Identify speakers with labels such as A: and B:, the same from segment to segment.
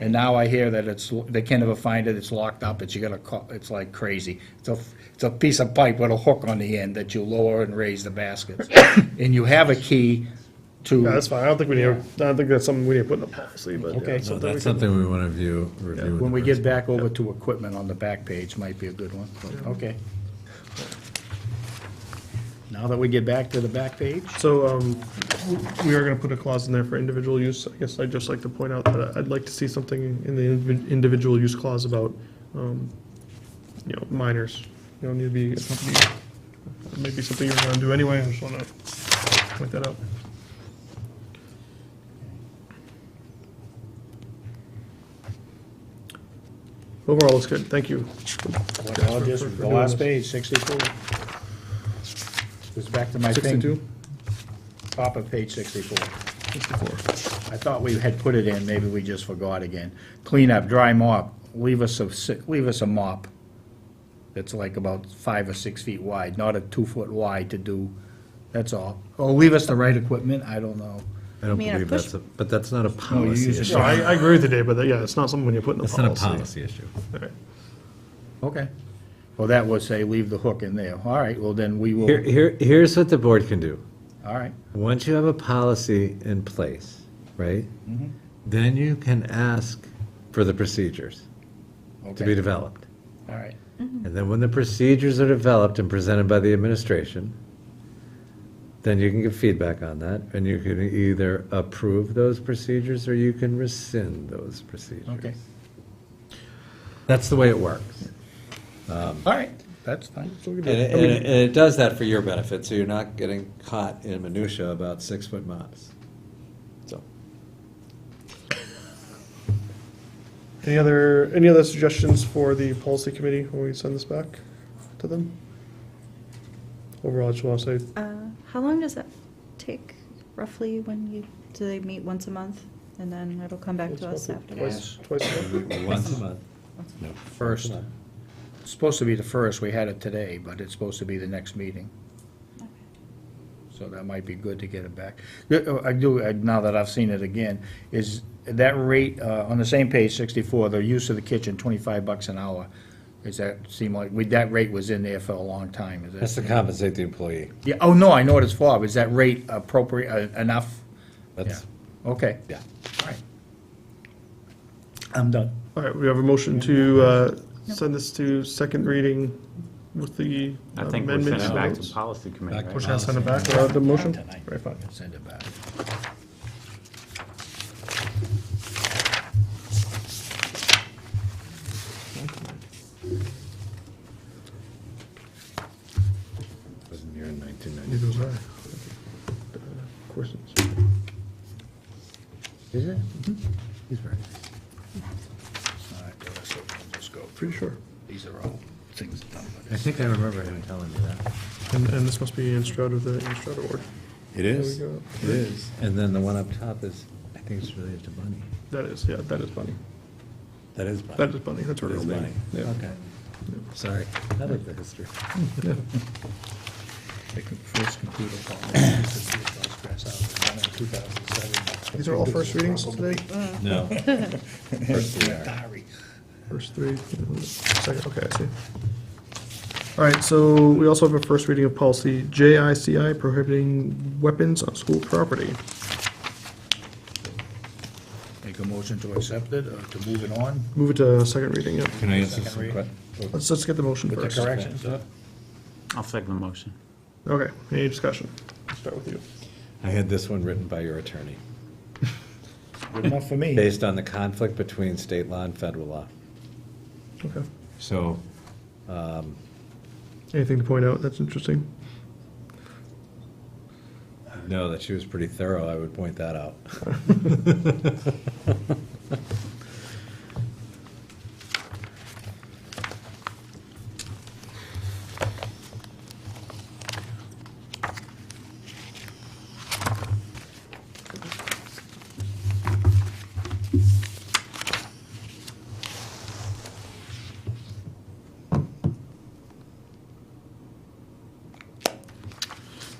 A: And now I hear that it's, they can't ever find it, it's locked up, it's, you gotta call, it's like crazy. It's a, it's a piece of pipe with a hook on the end that you lower and raise the baskets. And you have a key to.
B: Yeah, that's fine. I don't think we need, I don't think that's something we need to put in the policy, but. yeah,
A: Okay.
B: it's
A: No,
C: So
B: something we
C: that's
B: can-
C: something we want to view, review. with
A: When we
C: the
A: get back over to equipment on the back page, might be a good one, but, okay. Now that we get back to the back page,
B: So, um, we are gonna put a clause in there for individual use. I guess I'd just like to point out that I'd like to see something in the indivi- individual use clause about, um, you know, minors. You don't need to be, it's not to be- maybe something you're gonna do anyway. I just wanna point that out. Overall, looks good. Thank you.
A: what I'll just- the last page, sixty-four. Goes back to my thing.
B: 62?
A: Top of page sixty-four.
B: Sixty-four.
A: I thought we had put it in, maybe we just forgot again. Clean up, dry mop, leave us a, si- leave us a mop that's like about five or six feet wide, not a two-foot wide to do, that's all. Or leave us the right equipment, I don't know.
C: I don't
D: mean, a
C: believe
D: push-
C: that's, a- but that's not a
A: No, you
C: policy
A: use it.
C: issue.
B: No, I, I agree with you, Dave, but that- yeah, it's not something when you put in the
C: That's
B: policy.
C: not a policy issue.
B: All right.
A: Okay. Well, that would say leave the hook in there. All right, well, then we
C: Here,
A: will,
C: here, here's what the board can do.
A: all right.
C: Once you have a policy in place, right?
A: Mm-hmm.
C: Then you can ask for the procedures to be
A: Okay,
C: developed.
A: all right.
C: And then when the procedures are developed and presented by the administration, then you can give feedback on that, and you can either approve those procedures or you can rescind those procedures.
A: Okay.
C: That's the way it works.
A: All right, that's fine.
C: And it, and it- and it does that for your benefit, so you're not getting caught in minutia about six-foot mops. So,
B: Any other, any other suggestions for the policy committee when we send this back to them? Overall, I just want to say,
D: Uh, how long does that take roughly when you, do they meet once a month? And then it'll come back
B: It's
D: to us
B: roughly
D: after?
B: twice, twice a month.
C: once a month. No,
A: First, It's supposed to be the first, we had it today, but it's supposed to be the next meeting. So that might be good to get it back. Yeah, oh, I do, uh, now that I've seen it again, is that rate, uh, on the same page, 64, the use of the kitchen, 25 bucks an hour. Does that seem like, we- that rate was in there for a long time, is that?
C: That's to compensate the employee.
A: Yeah, oh, no, I know what it's for, but is that rate appropriate, uh, enough?
C: That's,
A: Yeah, Okay,
C: yeah.
A: all right. I'm done.
B: All right, we have a motion to uh, send this to second reading with the
E: I think we're
B: amendments.
E: sending it back to policy committee,
C: Back
E: right?
B: We're gonna send it back without the motion?
A: Tonight.
B: Right, fine.
A: Send it back.
C: Wasn't here in 1990.
B: Neither was I. Uh, Questions?
C: Is it? He's right.
A: All right, well, that's it, we'll just go.
B: Pretty sure.
A: These are all things done by
C: I
A: this.
C: think I remember him telling me that.
B: And, and this must be in Stroud of the, in Stroud Award.
C: It
B: is. There we go.
C: It is. And then the one up top is, I think it's related to money.
B: That is, yeah, that is Bunny.
C: That is money.
B: That is Bunny, that's her
C: It
B: real
C: is
B: name.
C: Bunny.
B: Yeah.
C: Okay. Sorry. I like the history.
A: The com- first computer problem was the Seahawks press out, and then in 2007.
B: These are all first readings today?
C: No. First we are.
A: Diary.
B: First three, second, okay, I see. All right, so we also have a first reading of policy JICI prohibiting weapons on school property.
A: Make a motion to accept it, or to move it on
B: Move it to second reading, yeah.
C: Can I answer
A: Second
C: some
A: read.
C: questions?
B: Let's, let's get the motion
A: with the
B: first.
A: corrections, huh?
E: I'll second the motion.
B: Okay, any discussion? Start with you.
C: I had this one written by your attorney,
A: Good enough for me.
C: based on the conflict between state law and federal law.
B: Okay.
C: So
B: Anything to point out that's interesting?
C: No, that she was pretty thorough, I would point that out.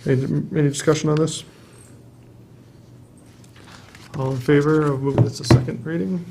B: Any, any discussion on this? All in favor of moving this to second reading?